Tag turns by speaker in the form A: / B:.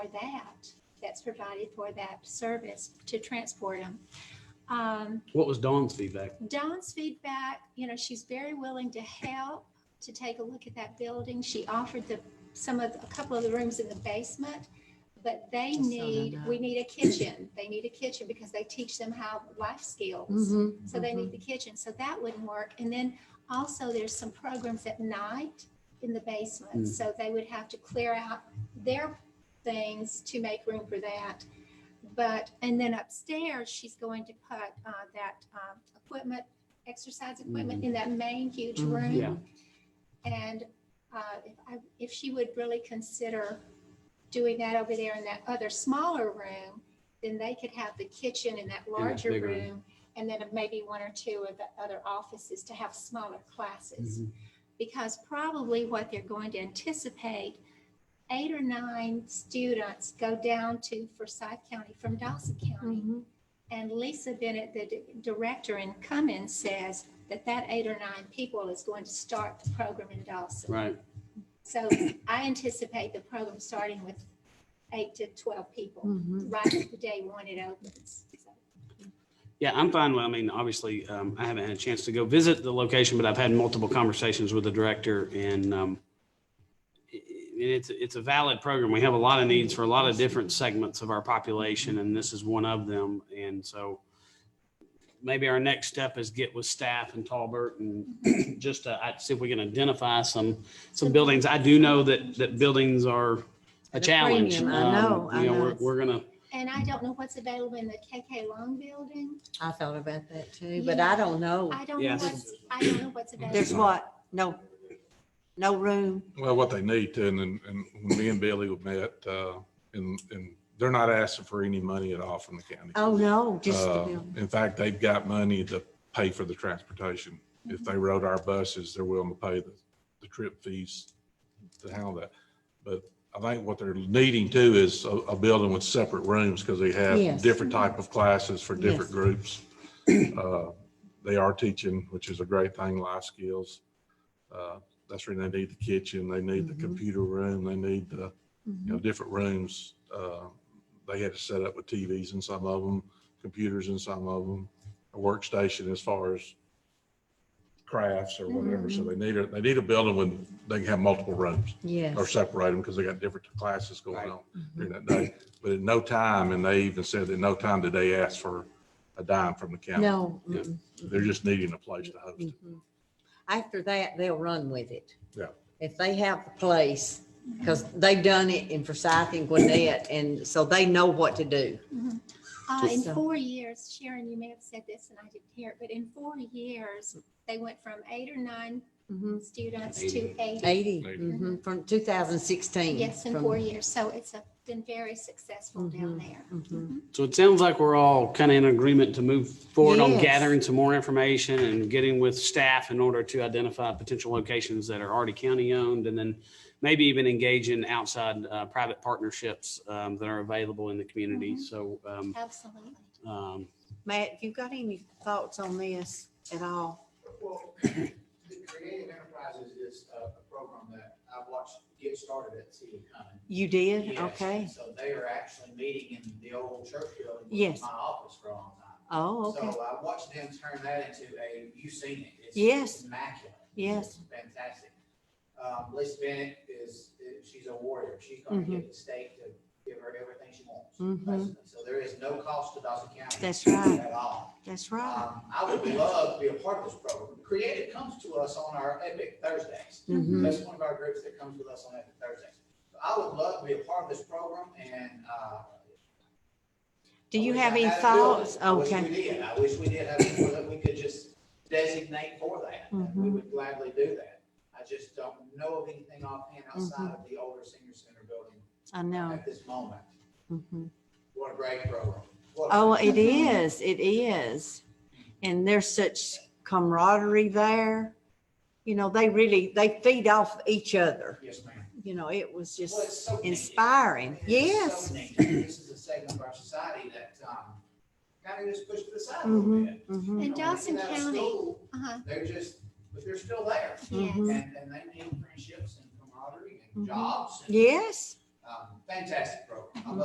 A: for that, that's provided for that service to transport them. Um,
B: What was Dawn's feedback?
A: Dawn's feedback, you know, she's very willing to help, to take a look at that building. She offered the, some of, a couple of the rooms in the basement, but they
C: saw that
A: need,
C: now.
A: we need a kitchen. They need a kitchen because they teach them how life skills.
C: Mhm,
A: So they
C: mhm.
A: need the
B: Mm-hmm.
A: kitchen, so that wouldn't work. And then also there's some programs at night in the
B: Mm.
A: basement, so they would have to clear out their things to make room for that. But, and then upstairs, she's going to put uh, that um, equipment, exercise equipment in that main huge
C: Mhm.
A: room.
B: Mm-hmm. Yeah.
A: And uh, if I- if she would really consider doing that over there in that other smaller room, then they could have the kitchen in that larger
B: bigger room.
A: room. And then maybe one or two of the other offices to have smaller
B: Mm-hmm.
A: classes. Because probably what they're going to anticipate, eight or nine students go down to Forsyth County from Dawson County.
C: Mhm.
A: And Lisa Bennett, the di- director in Cummins, says that that eight or nine people is going to start the program in Dawson.
B: Right.
A: So I anticipate the program starting with eight to 12 people,
C: Mhm.
A: right at the day one it opens. So,
B: Yeah, I'm fine. Well, I mean, obviously, um, I haven't had a chance to go visit the location, but I've had multiple conversations with the director and, um, i- i- it's, it's a valid program. We have a lot of needs for a lot of different segments of our population, and this is one of them. And so maybe our next step is get with staff and Talbert and just to, I, see if we can identify some, some buildings. I do know that, that buildings are a
C: At a
B: challenge.
C: premium. I
B: Um,
C: know, I
B: You know,
C: know.
B: we're, we're gonna,
A: And I don't know what's available in the KK Long Building.
C: I thought about that too, but I don't know.
A: I don't know
B: Yes.
A: what's, I don't know what's available.
C: Oh, There's what? No, no room.
D: Well, what they need to, and, and and when me and Billy were met, uh, and, and they're not asking for any money at all from the county.
C: Oh, no, just the
D: Uh,
C: building.
D: In fact, they've got money to pay for the transportation. If
C: Mm-hmm.
D: they rode our buses, they're willing to pay the, the trip fees to handle that. But I think what they're needing too is a, a building with separate rooms because they
C: Yes.
D: have different type of classes for different
C: Yes.
D: groups. Uh, They are teaching, which is a great thing, life skills. Uh, That's where they need the kitchen, they need the
C: Mhm.
D: computer room, they need the you know,
C: Mhm.
D: different rooms. uh, They had to set up with TVs in some of them, computers in some of them, a workstation as far as crafts or whatever. So
C: Mm-hmm.
D: they need a, they need a building when they can have multiple rooms or
C: Yes. Mm-hmm.
D: separate them because they got different classes
B: Right.
D: going on during that day. But at no time, and they even said at no time did they ask for a dime from the county.
C: No.
B: Yeah.
C: mm-mm,
D: They're just needing a place to host it.
C: mhm. After that, they'll run with it.
D: Yeah.
C: If they have the place, because they've done it in Forsyth and Gwinnett, and so they know what to do.
A: Uh, in
C: So-
A: four years, Sharon, you may have said this and I didn't hear it, but in four years, they went from eight or nine
C: Mhm.
A: students
B: Eighty.
A: to eighty.
C: 80
D: Maybe.
C: mhm, from 2016.
A: Yes, in
C: from-
A: four years. So it's uh, been very successful down there. Mm-hmm.
C: mhm.
B: So it sounds like we're all kind of in agreement to move forward on
C: Yes.
B: gathering some more information and getting with staff in order to identify potential locations that are already county owned and then maybe even engage in outside uh, private partnerships um, that are available in the community.
A: Mhm.
B: So um,
A: Absolutely.
B: um,
C: Matt, you got any thoughts on this at all?
E: Well, the Creative Enterprises is a a program that I watched get started at City of Cumming.
C: You did?
E: Yes,
C: Okay.
E: So they are actually meeting in the old church building. which
C: Yes.
E: is My office for a long time.
C: Oh, okay.
E: So I watched them turn that into a, you've seen it. It's-
C: Yes.
E: it's Immaculate.
C: Yes.
E: It's Fantastic. Um, Lisa Bennett is, she's a warrior. She's gonna
C: Mm-hmm.
E: get the state to give her everything she wants.
C: Mhm.
E: basically. So there is no cost to Dawson County.
C: That's right.
E: At all.
C: That's right.
E: Um, I would love to be a part of this program. Creative comes to us on our Epic Thursdays.
C: Mhm.
E: That's one of our groups that comes with us on Epic Thursdays. So I would love to be a part of this program and, uh.
C: Do
E: I
C: you
E: wish
C: have
E: I
C: any
E: had a building.
C: thoughts?
E: I wish we
C: Okay.
E: did. I wish we did have people that we could just designate for that. and We
C: Mhm.
E: would gladly do that. I just don't know of anything offhand
C: Mm-hmm.
E: outside of the older senior center building
C: I know.
E: at this moment.
C: Mhm.
E: What a great program. What a-
C: Oh, it is. It is. And there's such camaraderie there. You know, they really, they feed off each other.
E: Yes, ma'am.
C: You know, it was
E: Well, it's
C: just
E: so needed.
C: inspiring.
E: It's so
C: Yes.
E: needed. This is a segment of our society that, um, kind of just pushed to the side a little
C: Mhm.
E: bit.
C: Mhm.
E: You
A: And
E: know, when
A: Dawson
E: they get out of
A: County-
E: school,
A: Uh-huh.
E: They're just, but they're still there.
A: Yes.
C: Mhm.
E: And, and they need friendships and camaraderie and
C: Mhm.
E: jobs. and,
C: Yes.
E: uh, um, fantastic program. I'm